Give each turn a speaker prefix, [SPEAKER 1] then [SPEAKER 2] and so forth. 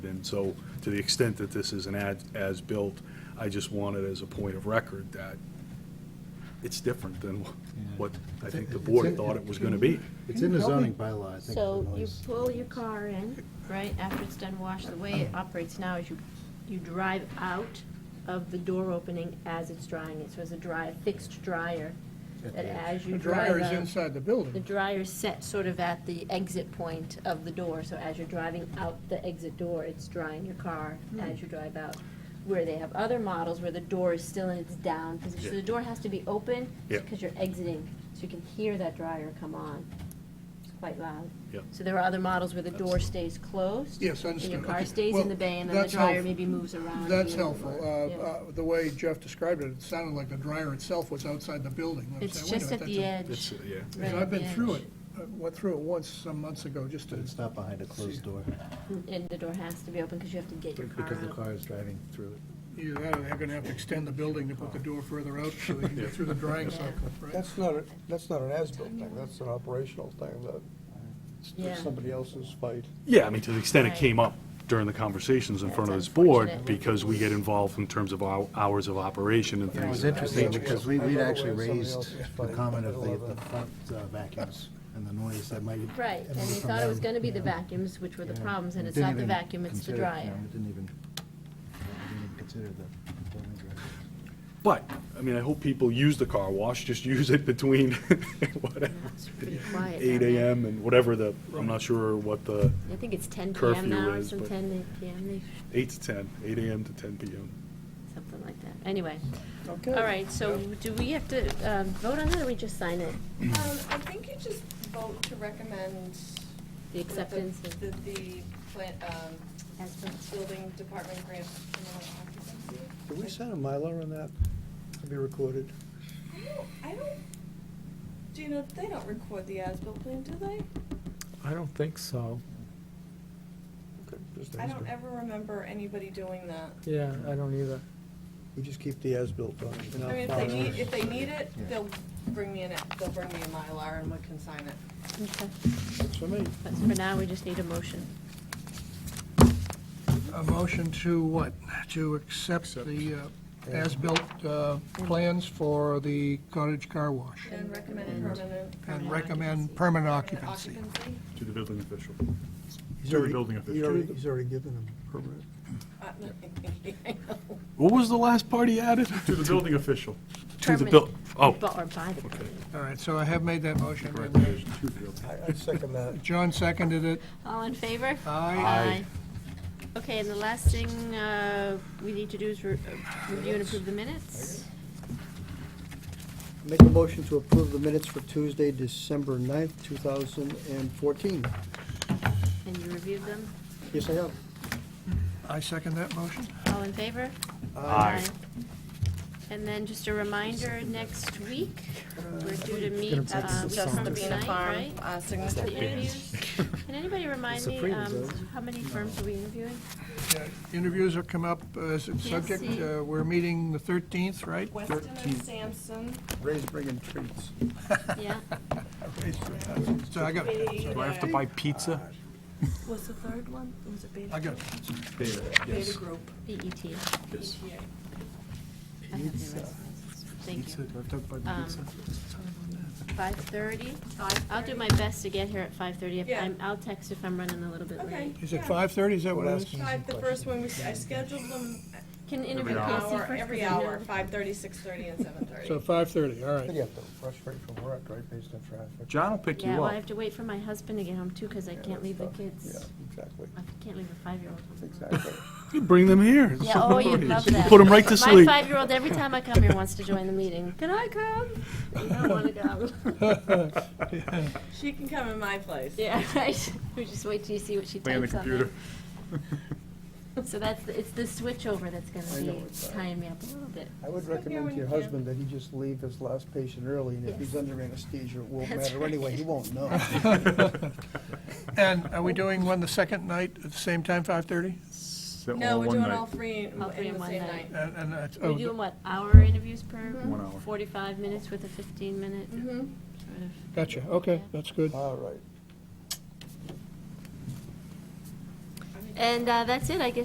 [SPEAKER 1] And so, to the extent that this is an ad- as-built, I just want it as a point of record that it's different than what I think the board thought it was going to be.
[SPEAKER 2] It's in the zoning bylaw, I think, for
[SPEAKER 3] So you
[SPEAKER 2] noise.
[SPEAKER 3] pull your car in, right, after it's done wash, the way it operates now is you, you drive out of the door opening as it's drying it, so it's a dry, fixed dryer,
[SPEAKER 2] At
[SPEAKER 3] that
[SPEAKER 2] the
[SPEAKER 3] as you
[SPEAKER 4] The
[SPEAKER 3] drive
[SPEAKER 4] dryer is
[SPEAKER 3] out,
[SPEAKER 4] inside the
[SPEAKER 3] the
[SPEAKER 4] building.
[SPEAKER 3] dryer's set sort of at the exit point of the door, so as you're driving out the exit door, it's drying your car
[SPEAKER 4] Hmm.
[SPEAKER 3] as you drive out. Where they have other models where the door is still in its down position, so the door has to be open,
[SPEAKER 1] Yeah.
[SPEAKER 3] because you're exiting, so you can hear that dryer come on. It's quite loud.
[SPEAKER 1] Yep.
[SPEAKER 3] So there are other models where the door
[SPEAKER 1] That's-
[SPEAKER 3] stays closed.
[SPEAKER 4] Yes,
[SPEAKER 3] And
[SPEAKER 4] I understand.
[SPEAKER 3] your car
[SPEAKER 4] Okay.
[SPEAKER 3] stays
[SPEAKER 4] Well,
[SPEAKER 3] in the bay, and then the
[SPEAKER 4] that's
[SPEAKER 3] dryer
[SPEAKER 4] helpful.
[SPEAKER 3] maybe moves around.
[SPEAKER 4] That's
[SPEAKER 3] a little
[SPEAKER 4] helpful.
[SPEAKER 3] bit.
[SPEAKER 4] Uh,
[SPEAKER 3] Yeah.
[SPEAKER 4] uh, The way Jeff described it, it sounded like the dryer itself was outside the building. I'm
[SPEAKER 3] It's
[SPEAKER 4] saying, wait a
[SPEAKER 3] just
[SPEAKER 4] minute,
[SPEAKER 3] at the
[SPEAKER 4] that's
[SPEAKER 3] edge.
[SPEAKER 1] It's, yeah.
[SPEAKER 4] a-
[SPEAKER 3] right
[SPEAKER 4] I've been
[SPEAKER 3] at the
[SPEAKER 4] through
[SPEAKER 3] edge.
[SPEAKER 4] it, I went through it once some months ago, just
[SPEAKER 2] But
[SPEAKER 4] to,
[SPEAKER 2] it's not behind a closed door,
[SPEAKER 3] And the door has to be open, because you have to get your car
[SPEAKER 2] because the
[SPEAKER 3] out.
[SPEAKER 2] car is driving through it.
[SPEAKER 4] either that or they're gonna have to extend the building to put the door further out so they can get through the drying cycle, right?
[SPEAKER 5] That's not, a- that's not an as-built thing, that's an operational thing, that,
[SPEAKER 3] Yeah.
[SPEAKER 5] it's somebody else's fight.
[SPEAKER 1] Yeah, I mean, to the extent it
[SPEAKER 3] Right.
[SPEAKER 1] came up during the conversations in front of
[SPEAKER 3] That's
[SPEAKER 1] this board,
[SPEAKER 3] unfortunate.
[SPEAKER 1] because we get involved in terms of our hours of operation and
[SPEAKER 2] It
[SPEAKER 1] things
[SPEAKER 2] was
[SPEAKER 1] of that
[SPEAKER 2] interesting,
[SPEAKER 1] nature.
[SPEAKER 2] because we, we'd actually
[SPEAKER 5] Somebody
[SPEAKER 2] raised
[SPEAKER 5] else's
[SPEAKER 2] the
[SPEAKER 5] fight.
[SPEAKER 2] comment of the,
[SPEAKER 5] Middle
[SPEAKER 2] the
[SPEAKER 5] of
[SPEAKER 2] front uh, vacuums and the noise that might.
[SPEAKER 3] Right, and
[SPEAKER 2] emanate
[SPEAKER 3] we
[SPEAKER 2] from
[SPEAKER 3] thought it was
[SPEAKER 2] them,
[SPEAKER 3] gonna be the
[SPEAKER 2] yeah.
[SPEAKER 3] vacuums, which were the
[SPEAKER 2] Yeah.
[SPEAKER 3] problems, and
[SPEAKER 2] It
[SPEAKER 3] it's
[SPEAKER 2] didn't
[SPEAKER 3] not the
[SPEAKER 2] even
[SPEAKER 3] vacuum, it's the
[SPEAKER 2] consider- no,
[SPEAKER 3] dryer.
[SPEAKER 2] it Didn't even, yeah, it didn't even consider the building director.
[SPEAKER 1] But, I mean, I hope people use the car wash, just use it between whatever,
[SPEAKER 3] It's pretty quiet.
[SPEAKER 1] eight
[SPEAKER 3] down there.
[SPEAKER 1] AM and whatever the, I'm not sure what the,
[SPEAKER 3] I think it's ten
[SPEAKER 1] Curfew
[SPEAKER 3] PM now, or
[SPEAKER 1] is,
[SPEAKER 3] some
[SPEAKER 1] but-
[SPEAKER 3] ten PM, they-
[SPEAKER 1] eight to ten, eight AM to ten PM.
[SPEAKER 3] something like that. Anyway,
[SPEAKER 4] Okay.
[SPEAKER 3] all right, so do we have to um, vote on that, or we just sign it?
[SPEAKER 6] Um, I think you just vote to recommend.
[SPEAKER 3] The acceptance
[SPEAKER 6] that The,
[SPEAKER 3] of-
[SPEAKER 6] that the plant, um,
[SPEAKER 3] As
[SPEAKER 6] building department grant criminal occupancy.
[SPEAKER 5] Did we send a Mylar on that to be recorded?
[SPEAKER 6] I don't, I don't, do you know, they don't record the as-built plan, do they?
[SPEAKER 7] I don't think so.
[SPEAKER 5] Okay, just
[SPEAKER 6] I
[SPEAKER 5] ask
[SPEAKER 6] don't
[SPEAKER 5] her.
[SPEAKER 6] ever remember anybody doing that.
[SPEAKER 7] Yeah, I don't either.
[SPEAKER 5] We just keep the as-built on. in our
[SPEAKER 6] I mean, if they
[SPEAKER 5] files.
[SPEAKER 6] need, if they need it,
[SPEAKER 2] Yeah.
[SPEAKER 6] they'll bring me in, they'll bring me a Mylar and we can sign it.
[SPEAKER 3] Okay,
[SPEAKER 5] That's for me.
[SPEAKER 3] but for now, we just need a motion.
[SPEAKER 4] A motion to what? To accept the uh, as-built uh, plans for the cottage car wash
[SPEAKER 6] And recommend permanent.
[SPEAKER 4] and
[SPEAKER 3] Permanent
[SPEAKER 4] recommend permanent
[SPEAKER 6] permanent
[SPEAKER 4] occupancy.
[SPEAKER 6] Occupancy.
[SPEAKER 1] To the building official.
[SPEAKER 5] He's
[SPEAKER 1] To the
[SPEAKER 5] already-
[SPEAKER 1] building
[SPEAKER 5] he
[SPEAKER 1] official.
[SPEAKER 5] already- He's already given them permit.
[SPEAKER 6] Uh, I know.
[SPEAKER 1] What was the last part he added? To the building official. To the buil,
[SPEAKER 3] Permanent.
[SPEAKER 1] oh,
[SPEAKER 3] Bu- Or by the building.
[SPEAKER 4] All right, so I have made that motion.
[SPEAKER 5] I, I second that.
[SPEAKER 4] John seconded it.
[SPEAKER 3] All in favor?
[SPEAKER 4] Aye.
[SPEAKER 3] Aye. Okay, and the last thing uh, we need to do is re- uh, review and approve the minutes.
[SPEAKER 5] Make a motion to approve the minutes for Tuesday, December 9th, 2014.
[SPEAKER 3] And you reviewed them?
[SPEAKER 5] Yes, I have.
[SPEAKER 4] I second that motion.
[SPEAKER 3] All in favor?
[SPEAKER 1] Aye.
[SPEAKER 3] And then just a reminder, next week, we're due to meet um, Justin Bean right?
[SPEAKER 6] Uh, signature
[SPEAKER 3] The
[SPEAKER 6] page.
[SPEAKER 3] interviews. Can anybody remind me
[SPEAKER 5] Supreme's
[SPEAKER 3] um,
[SPEAKER 5] over.
[SPEAKER 3] how many firms are we interviewing?
[SPEAKER 4] Yeah, Interviews have come up as a subject.
[SPEAKER 3] see.
[SPEAKER 4] Uh, We're meeting the 13th, right?
[SPEAKER 6] Weston and Sampson.
[SPEAKER 5] Ray's bringing treats.
[SPEAKER 3] Yeah?
[SPEAKER 4] So I got,
[SPEAKER 6] Do I have to buy?
[SPEAKER 1] Pizza?
[SPEAKER 6] Was the third one, was it Beta?
[SPEAKER 4] I got,
[SPEAKER 6] Beta Group.
[SPEAKER 3] BET.
[SPEAKER 1] Yes.
[SPEAKER 3] Oh,
[SPEAKER 6] Yeah.
[SPEAKER 3] E I have the rest. Thank you. Um, 5:30? I'll do my best to get here at 5:30. If
[SPEAKER 6] Yeah.
[SPEAKER 3] I'm, I'll text if I'm running a little bit
[SPEAKER 6] Okay.
[SPEAKER 3] late.
[SPEAKER 4] is it
[SPEAKER 6] yeah.
[SPEAKER 4] 5:30, is that what it is?
[SPEAKER 6] Five, the first one, we s- I scheduled them
[SPEAKER 3] Can interview
[SPEAKER 6] an
[SPEAKER 3] Casey
[SPEAKER 6] hour,
[SPEAKER 3] first,
[SPEAKER 6] every
[SPEAKER 3] 'cause I know
[SPEAKER 6] hour,
[SPEAKER 3] the-
[SPEAKER 6] five thirty, six thirty, and seven
[SPEAKER 4] So
[SPEAKER 6] thirty.
[SPEAKER 4] 5:30, all
[SPEAKER 5] I think
[SPEAKER 4] right.
[SPEAKER 5] you have to rush right from work, right, based on traffic.
[SPEAKER 8] John will pick you
[SPEAKER 3] Yeah, well, I
[SPEAKER 8] up.
[SPEAKER 3] have to wait for my husband to get home too, because I can't leave the
[SPEAKER 5] Yeah,
[SPEAKER 3] kids.
[SPEAKER 5] Exactly,
[SPEAKER 3] I can't leave a five-year-old home.
[SPEAKER 5] exactly.
[SPEAKER 1] Bring them here.
[SPEAKER 3] Yeah, oh, you'd love that.
[SPEAKER 1] Put them right to sleep.
[SPEAKER 3] My five-year-old, every time I come here, wants to join the meeting. Can I come? You don't want to go.
[SPEAKER 6] She can come in my place.
[SPEAKER 3] Yeah, right. We just wait till you see what she
[SPEAKER 8] on the
[SPEAKER 3] types on there. So that's, the- it's the switchover that's
[SPEAKER 5] I
[SPEAKER 3] gonna
[SPEAKER 5] know
[SPEAKER 3] be
[SPEAKER 5] it's, uh,
[SPEAKER 3] tying me up a little bit.
[SPEAKER 5] I would
[SPEAKER 6] Look here
[SPEAKER 5] recommend
[SPEAKER 6] when
[SPEAKER 5] to your
[SPEAKER 6] you can.
[SPEAKER 5] husband that he just leave his last patient early, and if he's
[SPEAKER 3] Yes.
[SPEAKER 5] under anesthesia, it won't
[SPEAKER 3] That's
[SPEAKER 5] matter anyway, he
[SPEAKER 3] right.
[SPEAKER 5] won't know.
[SPEAKER 4] And uh, are we doing one the second night at the same time, 5:30?
[SPEAKER 8] So,
[SPEAKER 6] No,
[SPEAKER 8] all
[SPEAKER 6] we're
[SPEAKER 8] one
[SPEAKER 6] doing
[SPEAKER 8] night.
[SPEAKER 6] all three in
[SPEAKER 3] All three
[SPEAKER 6] in the same night.
[SPEAKER 4] And, and that's-
[SPEAKER 3] We're
[SPEAKER 4] oh,
[SPEAKER 3] doing what, hour interviews per?
[SPEAKER 8] One hour.
[SPEAKER 3] Forty-five minutes with a fifteen-minute
[SPEAKER 6] Mm-hmm.
[SPEAKER 3] sort of.
[SPEAKER 4] gotcha, okay, that's good.
[SPEAKER 5] All right.
[SPEAKER 6] I mean,
[SPEAKER 3] And uh, that's it, I guess